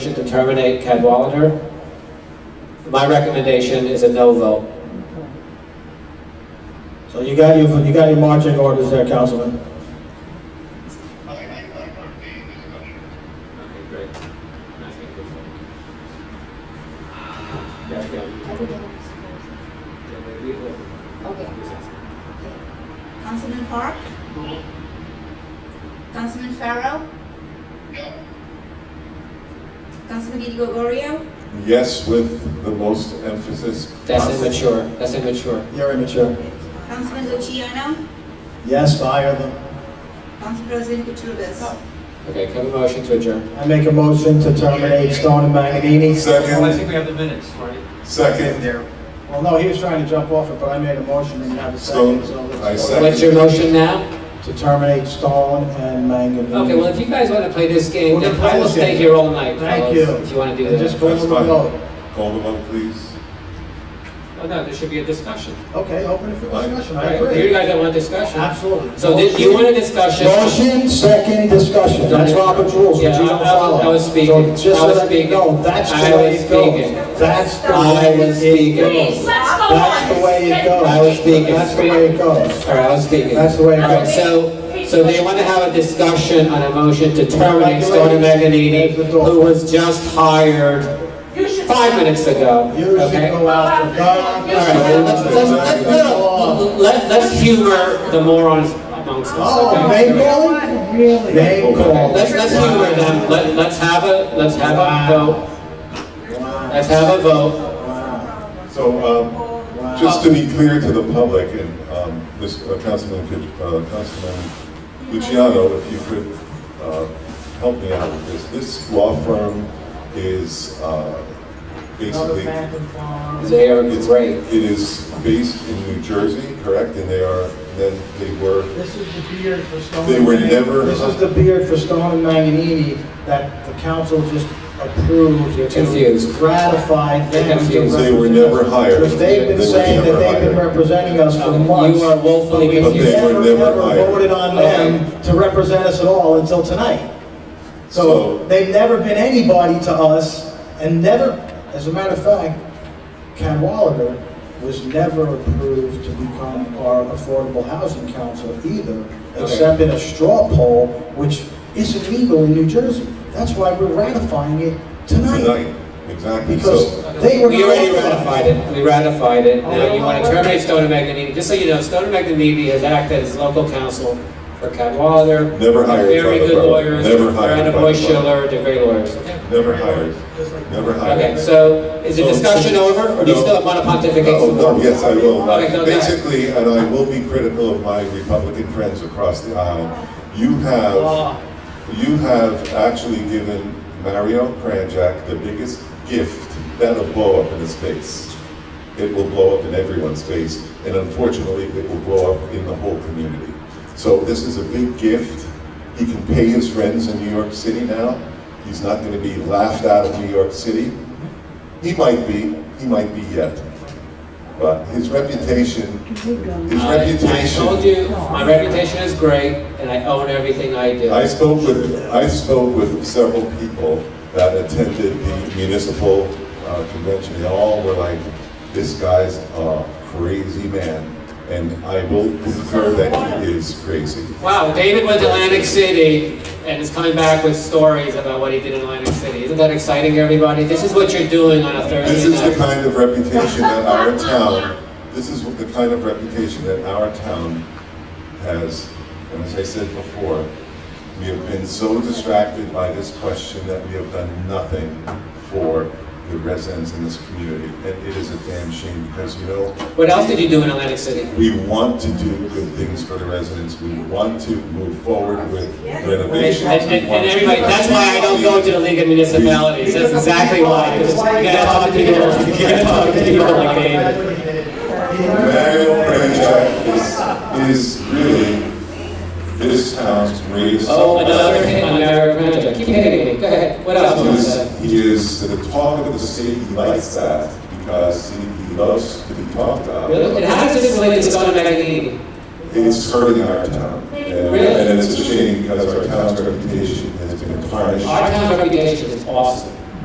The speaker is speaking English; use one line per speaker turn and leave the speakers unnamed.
terminate Cadwalader. My recommendation is a no vote.
So you got your, you got your marching orders there, Councilman.
Okay, great. Nice to meet you.
Everything is closed. Okay. Councilman Park? Councilman Farrell? Councilman Di Gregorio?
Yes, with the most emphasis.
That's
possible.
immature, that's immature.
You're immature.
Councilman Luciano?
Yes, fire them.
Council President Cutrubes?
Okay, can I have a motion to adjourn?
I make a motion to terminate Stone and Magninini.
Well, I
Second,
think we have the minutes, right?
second,
Well, no, he was trying to jump off it, but I made a motion and you have a second. so
Stone,
let's-
I second.
What's your motion now?
To terminate Stone and Magninini.
Okay, well, if you guys want to play this game,
We're
then
gonna play
I will
this
stay
game.
here all night,
Thank
fellas,
you.
if you want to do
And just
that.
go to
that's
the vote.
fine. Call the vote, please.
Oh, no, there should be a discussion.
Okay, open it for discussion,
Right?
I
You
agree.
guys don't want discussion?
Absolutely.
So did you want a discussion?
Motion, second, discussion, that's Robert's rules, which you
Yeah,
don't
I- I-
follow.
I was
So
speaking.
just
I was
so that you
speaking.
know, That's the
I
way
was
it goes.
speaking.
That's the
I
way
was
it
speaking.
Let's
goes.
go on.
That's the way it goes.
I was speaking.
That's the way it goes.
All right, I was speaking.
That's the way it
All right,
goes.
so, so they want to have a discussion on a motion to terminate Stoney Meganini, who was just hired
You should.
five minutes ago,
You should
okay?
go out to God.
All right,
All right, let's- let's- let's-
Oh,
let- let- Let's humor the morons amongst us,
name
okay?
calling? Really? Name calling.
Let's, let's humor them, let, let's have a, let's have a
Wow.
vote,
Wow.
let's have a vote.
Wow.
So, um, just to be clear to the public and, um, this, uh, Councilman, Kit- uh, Councilman Luciano, if you could, uh, help me out with this. This law firm is, uh, basically.
They are
It's-
great.
It is based in New Jersey, correct? And they are, then they were,
This is the beard for Stone.
They were never-
This is the beard for Stone and Magninini that the council just approved.
You're
to
confused.
Ratify them.
You're
to
confused.
They were
represent us.
never hired.
Because they've
They
been
were
saying that
never
they've been
hired.
representing us for
Okay, you
months.
are woefully
but we
confused.
But they were never hired.
Voted on them to represent us at all until tonight.
So-
So they've never been anybody to us and never, as a matter of fact, Cadwalader was never approved to become our affordable housing council either, except in a straw poll, which isn't legal in New Jersey. That's why we're ratifying it
tonight,
tonight,
exactly.
because
So,
they were.
We already
not
ratified it, we ratified it, now you want to terminate Stone and Magnanini, just so you know, Stone and Magnanini has acted as local counsel for Cadwalader.
Never hired by
Very
the
good
borough.
lawyers,
Never hired
Brandon
by the
Boy
borough.
Schiller, they're great lawyers, okay?
never hired, never hired.
Okay, so is the
So-
discussion over, or do you still want to pontificate
Oh,
some more?
no, yes, I will.
Okay, go ahead.
Basically, and I will be critical of my Republican friends across the aisle, you have, you have actually given Mario Kranjak the biggest gift that'll blow up in his face. It will blow up in everyone's face, and unfortunately, it will blow up in the whole community. So this is a big gift. He can pay his friends in New York City now. He's not going to be laughed out of New York City. He might be, he might be yet. But his reputation, his
I- I told
reputation.
you, my reputation is great, and I own everything I do.
I spoke with, I spoke with several people that attended the municipal uh, convention. They all were like, this guy's a crazy man. And I will concur that he is crazy.
Wow, David went to Atlantic City and is coming back with stories about what he did in Atlantic City. Isn't that exciting, everybody? This is what you're doing on a
This
Thursday
is the
night.
kind of reputation that our town, this is the kind of reputation that our town has. And as I said before, we have been so distracted by this question that we have done nothing for the residents in this community. And it is a damn shame because, you know,
What else did you do in Atlantic City?
we want to do good things for the residents. We want to move forward with renovations.
And, and, and everybody, that's why I don't go to the League of Municipalities. That's exactly why. 'cause You gotta talk to people, you gotta talk to people like David.
Mario Kranjak is, is really this town's greatest.
Oh, another hit on Mayor Kranjak. Keep hitting me. Go ahead. What else? do
He
you want to say?
is, he is the talk of the city, he likes that, because he, he loves to be talked
Really?
about.
And how does this relate to Stone Magazine?
It's hurting our town. And
Really?
and it's a shame, because our town's reputation has been tarnished.
Our town reputation is awesome.